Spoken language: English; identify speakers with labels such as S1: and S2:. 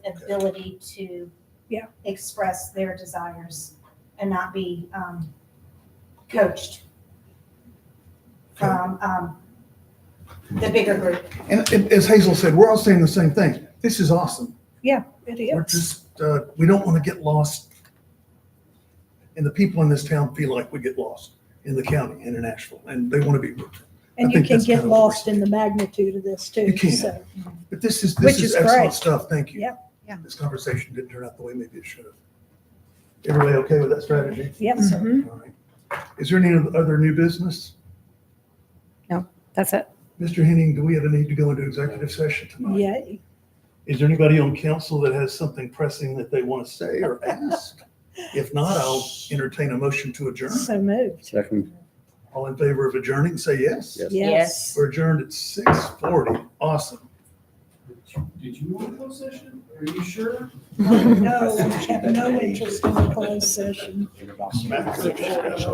S1: ability to
S2: Yeah.
S1: express their desires and not be um, coached from um, the bigger group.
S3: And it- as Hazel said, we're all saying the same thing. This is awesome.
S2: It
S3: We're
S2: is.
S3: just, uh, we don't want to get lost. And the people in this town feel like we get lost in the county and in Asheville, and they want to be with them.
S2: And
S3: I
S2: you
S3: think
S2: can
S3: that's
S2: get
S3: kind of what we're
S2: lost in the magnitude of this too.
S3: You can.
S2: So,
S3: But this is,
S2: Which
S3: this
S2: is
S3: is
S2: great.
S3: excellent stuff. Thank you.
S2: Yeah,
S4: yeah.
S3: This conversation didn't turn out the way maybe it should have. Everybody okay with that strategy?
S2: yep, sir.
S3: All right. Is there any other new business?
S4: That's it.
S3: Mr. Henning, do we have a need to go into executive session tonight?
S2: Yeah,
S3: Is there anybody on council that has something pressing that they want to say or ask? If not, I'll entertain a motion to adjourn.
S2: so moved.
S5: Second.
S3: All in favor of adjourning, say yes.
S5: Yes.
S2: Yes.
S3: We're adjourned at six forty. Awesome.
S6: Did you want a closed session? Are you sure?
S2: No, we have no interest in a closed session.
S3: Smack.